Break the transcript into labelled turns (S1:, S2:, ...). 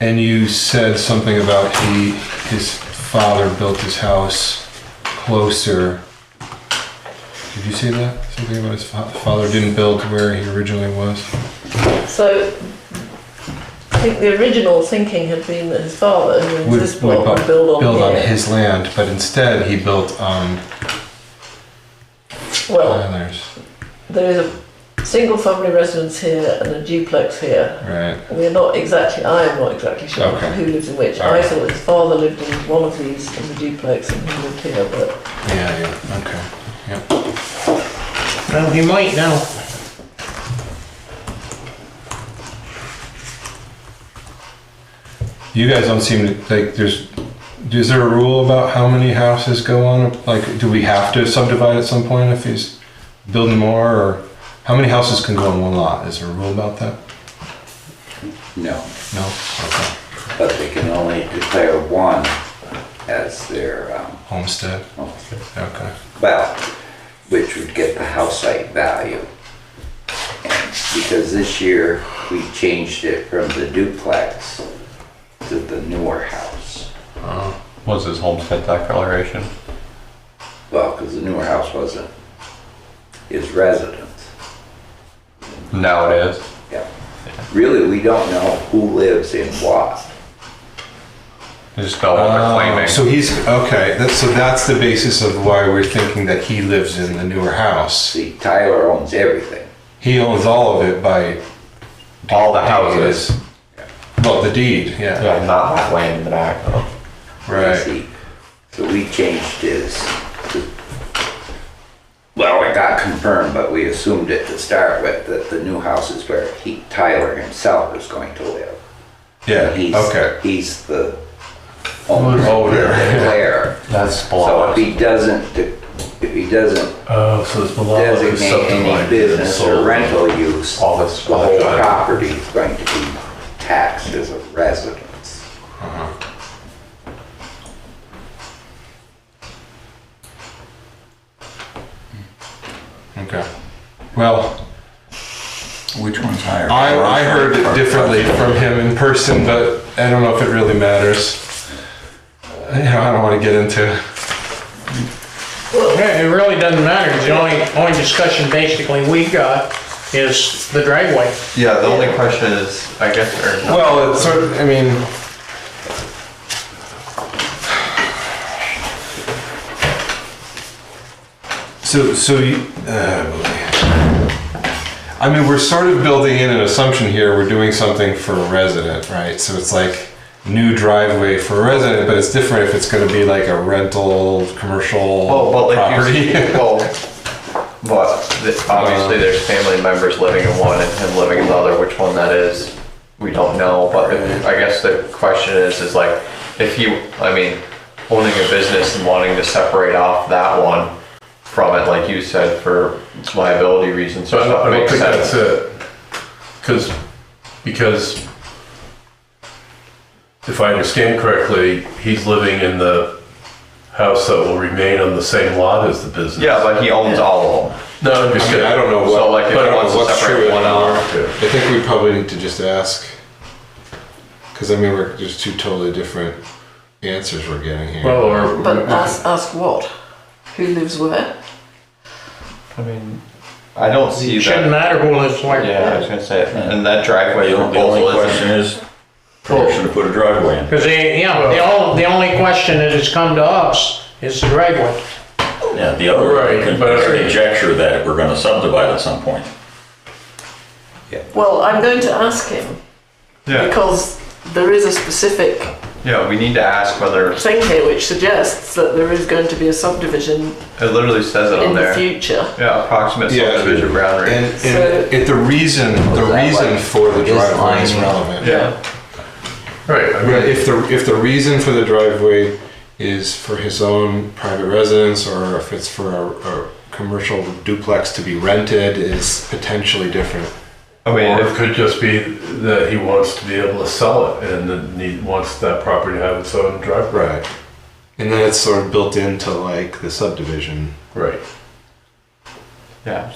S1: And you said something about he, his father built his house closer. Did you say that? Something about his fa- father didn't build where he originally was?
S2: So I think the original thinking had been that his father, who owns
S1: Would-
S2: this
S1: would
S2: plot,
S1: bu-
S2: would build on
S1: build on
S2: here.
S1: his land, but instead he built on
S2: Well,
S1: Tyler's.
S2: there is a single family residence here and a duplex here.
S1: Right.
S2: We're not exactly, I am not exactly sure
S1: Okay.
S2: who lives in which. I
S1: Alright.
S2: thought his father lived in one of these in the duplex and he lived here, but
S1: Yeah, yeah. Okay.
S3: Well, he might now.
S1: You guys don't seem to like there's is there a rule about how many houses go on? Like, do we have to subdivide at some point if he's building more, or how many houses can go on one lot? Is there a rule about that?
S4: No,
S1: No. Okay.
S4: but they can only declare one as their, um,
S1: Homestead. Okay.
S4: well, which would get the house site value. And because this year, we changed it from the duplex to the newer house.
S5: Was his homestead declaration?
S4: Well, because the newer house wasn't his residence.
S5: Now it is.
S4: Yeah. Really, we don't know who lives in what.
S5: They just spell what they're claiming.
S1: Oh, So he's okay. That's, so that's the basis of why we're thinking that he lives in the newer house.
S4: See, Tyler owns everything.
S1: He owns all of it by
S5: All the houses.
S1: Well, the deed. Yeah.
S5: Yeah, not that land in the back though.
S1: Right.
S4: See, So we changed his, to- well, it got confirmed, but we assumed it to start with, that the new house is where he, Tyler himself is going to live.
S1: Yeah.
S4: He's-
S1: Okay.
S4: He's the owner,
S1: Owner.
S4: the declarer.
S5: That's
S4: So if
S5: below.
S4: he doesn't, de- if he doesn't
S6: Oh, so it's below is
S4: designate any
S6: subdivided and
S4: business or
S6: sold.
S4: rental use, the
S5: All this
S4: whole
S5: electronic.
S4: property is going to be taxed as a residence.
S1: Okay. Well.
S7: Which one's higher?
S1: I, I heard it differently from him in person, but I don't know if it really matters. You know, I don't want to get into.
S3: Yeah, it really doesn't matter. The only, only discussion basically we got is the driveway.
S5: Yeah, the only question is, I guess, or not.
S1: Well, it's sort of, I mean. So, so you, uh, I mean, we're sort of building in an assumption here. We're doing something for a resident, right? So it's like new driveway for a resident, but it's different if it's going to be like a rental, commercial
S5: Well, Oh, but like
S1: property.
S5: you, well, but the- obviously there's family members living in one and him living in the other, which one that is, we don't know, but if- I guess the question is, is like, if you, I mean, owning a business and wanting to separate off that one from it, like you said, for liability reasons
S6: So
S5: or
S6: I don't, I
S5: stuff
S6: don't
S5: makes
S6: think that's
S5: sense.
S6: it. Cause, because if I understand correctly, he's living in the house that will remain on the same lot as the business.
S5: Yeah, but he owns all of them.
S6: No, I'm
S1: I
S6: just
S1: mean,
S6: kidding.
S1: I don't know what.
S5: So, like, if
S1: I don't
S5: he
S1: know
S5: wants to
S1: what's
S5: separate
S1: true
S5: one
S1: anymore.
S5: off,
S6: yeah.
S1: I think we probably need to just ask, because I mean, we're there's two totally different answers we're getting here.
S6: Well, or.
S2: but ask, ask what? Who lives where?
S5: I mean, I don't see
S3: It shouldn't
S5: that.
S3: matter who lives where.
S5: Yeah, I was gonna say, and that driveway
S7: The only- the only
S5: proposal isn't.
S7: question is, permission to put a driveway in.
S3: Because they, yeah, the only, the only question that has come to us is the driveway.
S7: Yeah, the other,
S6: Right,
S7: con-
S6: but-
S7: conjecture that we're gonna subdivide at some point.
S2: Well, I'm going to ask him
S5: Yeah,
S2: because there is a specific
S5: yeah, we need to ask whether, it
S2: thing here which suggests that there is going to be a subdivision
S5: literally says it
S2: in
S5: on
S2: the
S5: there.
S2: future.
S5: Yeah, approximate
S1: Yeah.
S5: subdivision
S1: and,
S5: boundary.
S1: and it, the reason the
S4: that
S1: reason
S4: like
S1: for the
S4: his
S1: driveway is
S4: line?
S1: relevant.
S5: Yeah,
S6: Right, I
S1: Right,
S6: mean,
S1: If the if the reason for the driveway is for his own private residence, or if it's for a, a commercial duplex to be rented, is potentially different.
S5: I mean,
S6: or it
S5: if,
S6: could just be that he wants to be able to sell it and then he wants that property to have its own driveway.
S1: Right. And then it's sort of built into like the subdivision.
S6: Right.
S5: yeah,